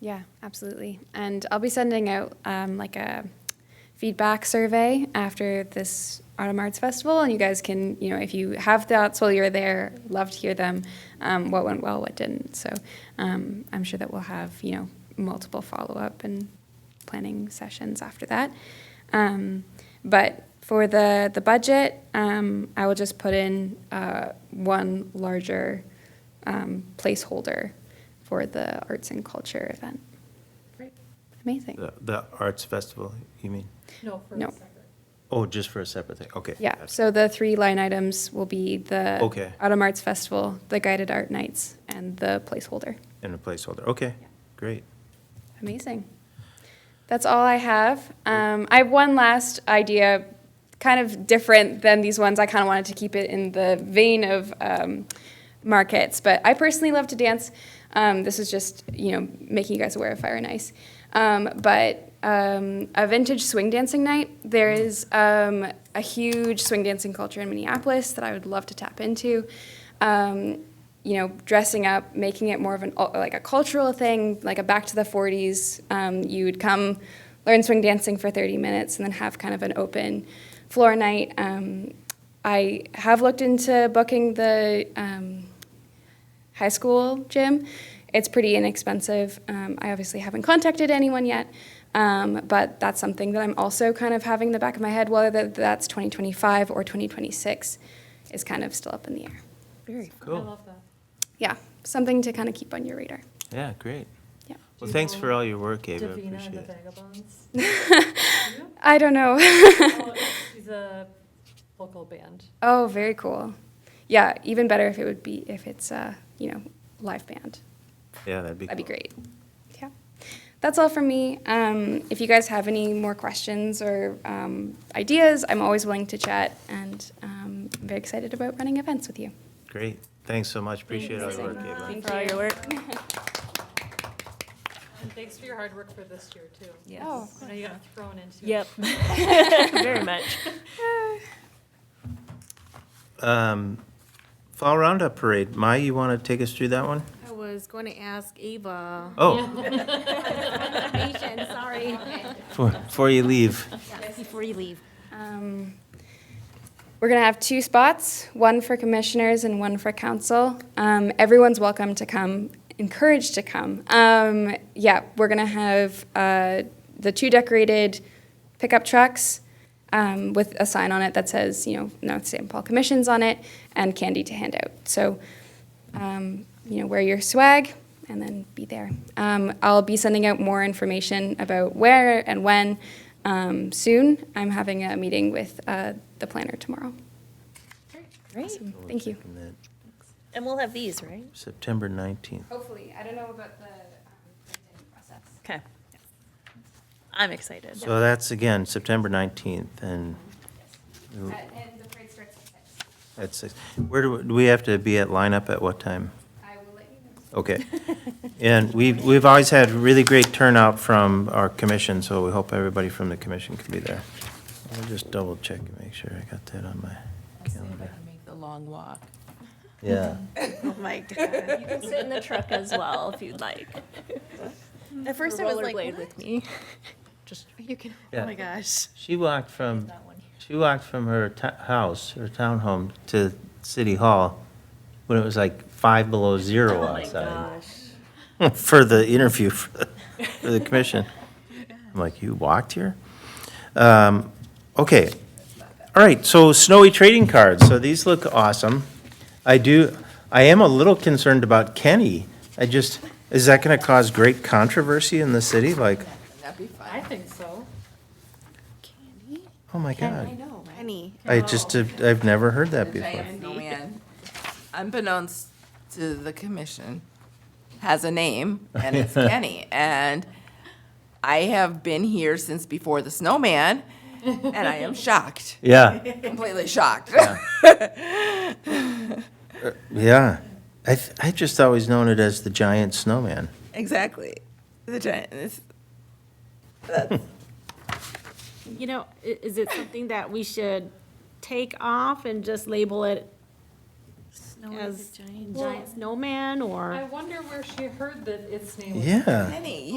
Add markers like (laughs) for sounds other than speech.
Yeah, absolutely. And I'll be sending out um, like a feedback survey after this Autumn Arts Festival, and you guys can, you know, if you have thoughts while you're there, love to hear them. Um, what went well, what didn't. So um, I'm sure that we'll have, you know, multiple follow up and planning sessions after that. Um, but for the the budget, um, I will just put in uh, one larger um, placeholder for the arts and culture event. Great. Amazing. The, the arts festival, you mean? No, for No. a second. Oh, just for a separate thing, okay. Yeah, gotcha. so the three line items will be the Okay. Autumn Arts Festival, the guided art nights, and the placeholder. And a placeholder, okay, great. Amazing. That's all I have. Um, I have one last idea, kind of different than these ones. I kind of wanted to keep it in the vein of um, markets, but I personally love to dance. Um, this is just, you know, making you guys aware of Fire and Ice. Um, but um, a vintage swing dancing night. There is um, a huge swing dancing culture in Minneapolis that I would love to tap into. Um, you know, dressing up, making it more of an uh, like a cultural thing, like a back to the 40s. Um, you would come, learn swing dancing for 30 minutes, and then have kind of an open floor night. Um, I have looked into booking the um, high school gym. It's pretty inexpensive. Um, I obviously haven't contacted anyone yet, um, but that's something that I'm also kind of having in the back of my head, whether that's 2025 or 2026 is kind of still up in the air Very. I Cool, love that. yeah, something to kind of keep on your radar. yeah, great. Yeah. Well, thanks for all your work, Gabe, I Davina and the appreciate it. Vagabonds. (laughs) I don't know. (laughs) Oh, She's a local band. oh, very cool. Yeah, even better if it would be if it's uh, you know live band. Yeah, that'd be. That'd be cool. great. Yeah, that's all from me. Um, if you guys have any more questions or um, ideas, I'm always willing to chat, and um, I'm very excited about running events with you. Great, thanks so much, appreciate all your work, Gabe. Thank For all your work. And thanks for your hard work for this year, too. Yes. Oh. I know you got thrown into it. (laughs) Yep. Very much. Um, Fall Roundup Parade, Mai, you want to take us through that one? I was going to ask Ava. Oh, Information, (laughs) sorry. before before you leave, Before you leave. Um, We're going to have two spots, one for commissioners and one for council. Um, Everyone's welcome to come, encouraged to come. Um, Yeah, we're going to have uh, the two decorated pickup trucks um, with a sign on it that says, you know, North St. Paul Commissions on it, and candy to hand out. So, um, you know, wear your swag and then be there. Um, I'll be sending out more information about where and when um, soon. I'm having a meeting with uh, the planner tomorrow. Great. Thank you. Taking that And we'll have these, right? September 19th. Hopefully, I don't know about the process. Okay. I'm excited. So that's again, September 19th, and Um, Uh, and the parade starts at six. at six. Where do, we- do we have to be at lineup at what time? I will let you know. Okay. And we've, we've always had really great turnout from our commission, so we hope everybody from the commission can be there. Let me just double check and make sure I got that on my calendar. make the long walk. Yeah. Oh my god. You can sit in the truck as well if you'd like. At first I was like, Rollerblade with me. "What? You can, Yeah. oh my gosh. She walked from, she walked from her to- house, her townhome, to City Hall when it was like five below Oh zero Oh outside (laughs) for the interview for the- for the commission. I'm like, you walked here? Um, Okay. All right, so snowy trading cards, so these look awesome. I do, I am a little concerned about Kenny. I just, is that going to cause great controversy in the city? Like, That'd be fun. I think so. oh my God. know, Penny. I just, have- I've never heard that before. Giant snowman, Oh, unbeknownst to the commission, has a name, (laughs) and it's Kenny. And I have been here since before the snowman, and (laughs) I am shocked, Yeah, completely shocked. yeah. I, th- I just always known it as the giant snowman. (laughs) Exactly. The giant, it's- You know, i- is it something that we should take off and just label it as giant snowman or? I wonder where she heard that its name was Yeah. Kenny,